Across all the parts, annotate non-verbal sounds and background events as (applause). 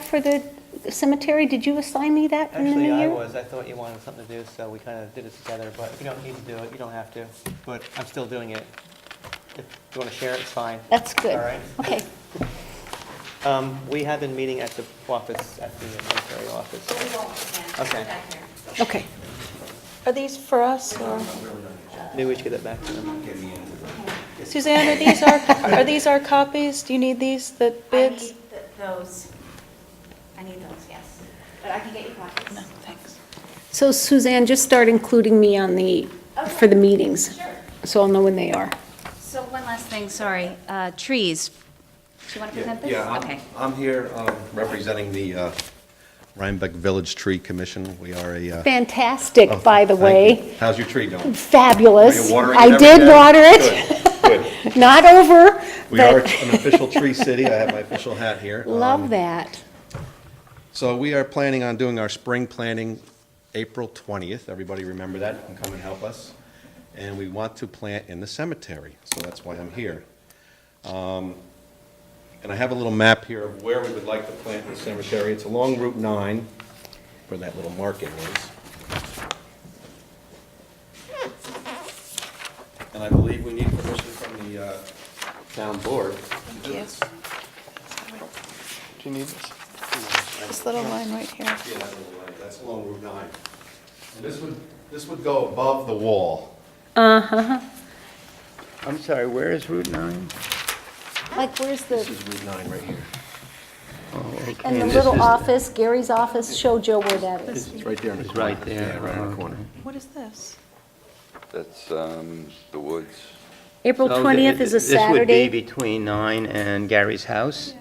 for the cemetery? Did you assign me that in the new Actually, year? I was, I thought you wanted something to do, so we kind of did it together, but you don't need to do it, you don't have to, but I'm still doing it. If you want to share, it, it's fine. That's good. All right. Okay, Um, We have been meeting at the office, at the military office. Okay. okay. Are these for us or? Maybe we should get that back to them. Suzanne, are these our, are these our copies? Do you need these, the I bids? need th- those, I need those, yes, but I can get you copies. No, thanks. So Suzanne, just start including me on the, for the meetings, Sure. so I'll know when they are. So one last thing, sorry, uh, trees. Do you want to Yeah, present this? yeah, I'm- Okay. I'm here um, representing the uh, Rhinebeck Village Tree Commission. We are a... uh, oh, Fantastic, by the thank way. you. How's your tree doing? Are Fabulous. you watering it I every did day? water it, Good, (laughs) good. not over, We (laughs) are but an official tree city. I have my official hat here. love Um, that. So we are planning on doing our spring planting April 20th. Everybody remember that and come and help us. And we want to plant in the cemetery, so that's why I'm here. Um, And I have a little map here of where we would like to plant in the cemetery. It's along Route 9, where that little marking is. And I believe we need permission from the uh, town board. Thank you. Do you need this? This little line right here. yeah, that little line, that's along Route 9. And this would, this would go above the wall. Uh-huh. I'm sorry, where is Route 9? Like, where's This the, is Route 9 right here. Oh, and the this little is- office, Gary's office, show Joe where that is. It's right there in the It's corner. right there, Yeah, right in the corner. What is this? That's um, the woods. April Oh, 20th is a th- This would be Saturday. between 9 and Gary's house.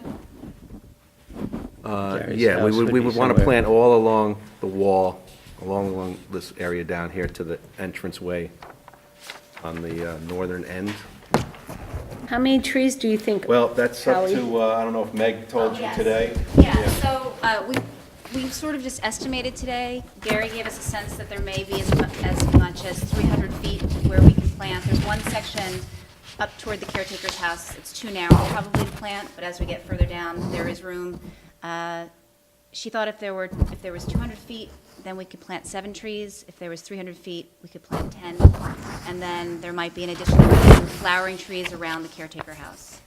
Uh, Gary's Yeah, we house would, would we be would want to somewhere. plant all along the wall, along, along this area down here to the entranceway on the uh, northern end. How many trees do you think? Well, that's up Howie? to, uh, I don't know if Meg told you Oh, Yes. today. Yeah, so uh, we, we sort of just estimated today. Gary gave us a sense that there may be as mu- as much as 300 feet where we can plant. There's one section up toward the caretaker's house, it's too narrow probably to plant, but as we get further down, there is room. Uh, She thought if there were, if there was 200 feet, then we could plant seven trees. If there was 300 feet, we could plant 10. And then there might be an additional few flowering trees around the caretaker house.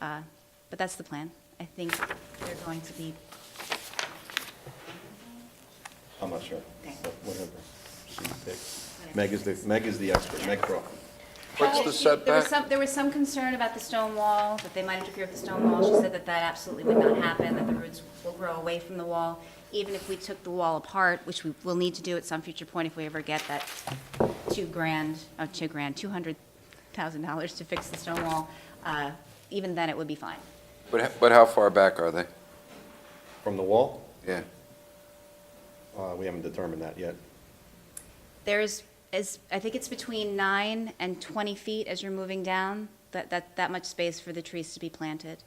Uh, But that's the plan. I think they're going to be, I'm not sure, but whatever. She picks. Meg is the, Meg is the expert, Meg Crawford. What's the there was setback? some, there was some concern about the stone wall, that they might interfere with the stone wall. She said that that absolutely would not happen, that the roots will grow away from the wall, even if we took the wall apart, which we will need to do at some future point if we ever get that two grand, oh, two grand, $200,000 to fix the stone wall. Uh, Even then, it would be fine. But h- but how far back are they? From the wall? Yeah. Uh, We haven't determined that yet. There's, is, I think it's between nine and 20 feet as you're moving down, that, that, that much space for the trees to be planted.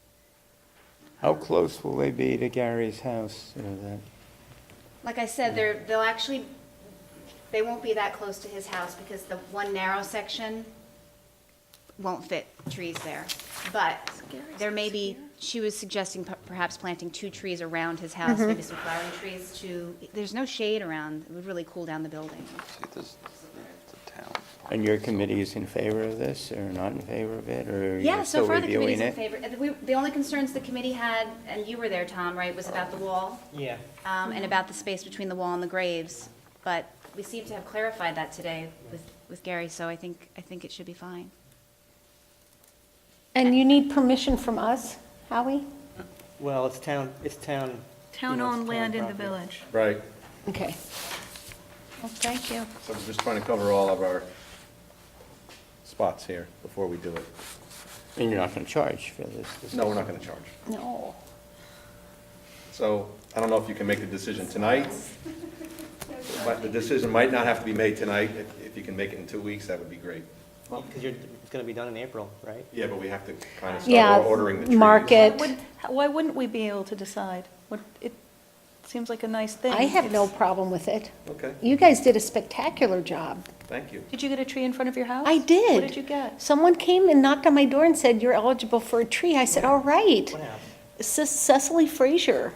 How close will they be to Gary's house? you know, that- Like I said, they're, they'll actually, they won't be that close to his house because the one narrow section won't fit trees there. But there may be, she was suggesting per- perhaps planting two trees around his house, maybe some flowering trees to, there's no shade around, it would really cool down the building. See, this, the town. And your committee is in favor of this, or not in favor of it, or Yeah, you're so still far the committee's reviewing in it? favor. Uh, we- The only concerns the committee had, and you were there, Tom, right, was about the wall? Yeah. um, and about the space between the wall and the graves, but we seem to have clarified that today with, with Gary, so I think, I think it should be fine. And you need permission from us, Howie? Well, it's town, it's town. you know, it's Town-owned land in the property. village. Right. Okay. Well, thank you. So I'm just trying to cover all of our spots here before we do it. And you're not going to charge for this? this No, is- we're not going to charge. No. So I don't know if you can make the decision tonight. But the decision might not have to be made tonight. If- If you can make it in two weeks, that would be great. Because you're, it's going to be done in April, right? Yeah, but we have to kind of Yeah, start ordering the trees. market. Would- Why wouldn't we be able to decide? Would- It seems like a nice thing. I have no It's- problem with it. Okay, You guys did a spectacular job. thank you. Did you get a tree in front of your house? I did. Oh, What did you get? Someone came and knocked on my door and said, "You're eligible for a tree." I said, "All right." What happened? Ce- Cecily Frazier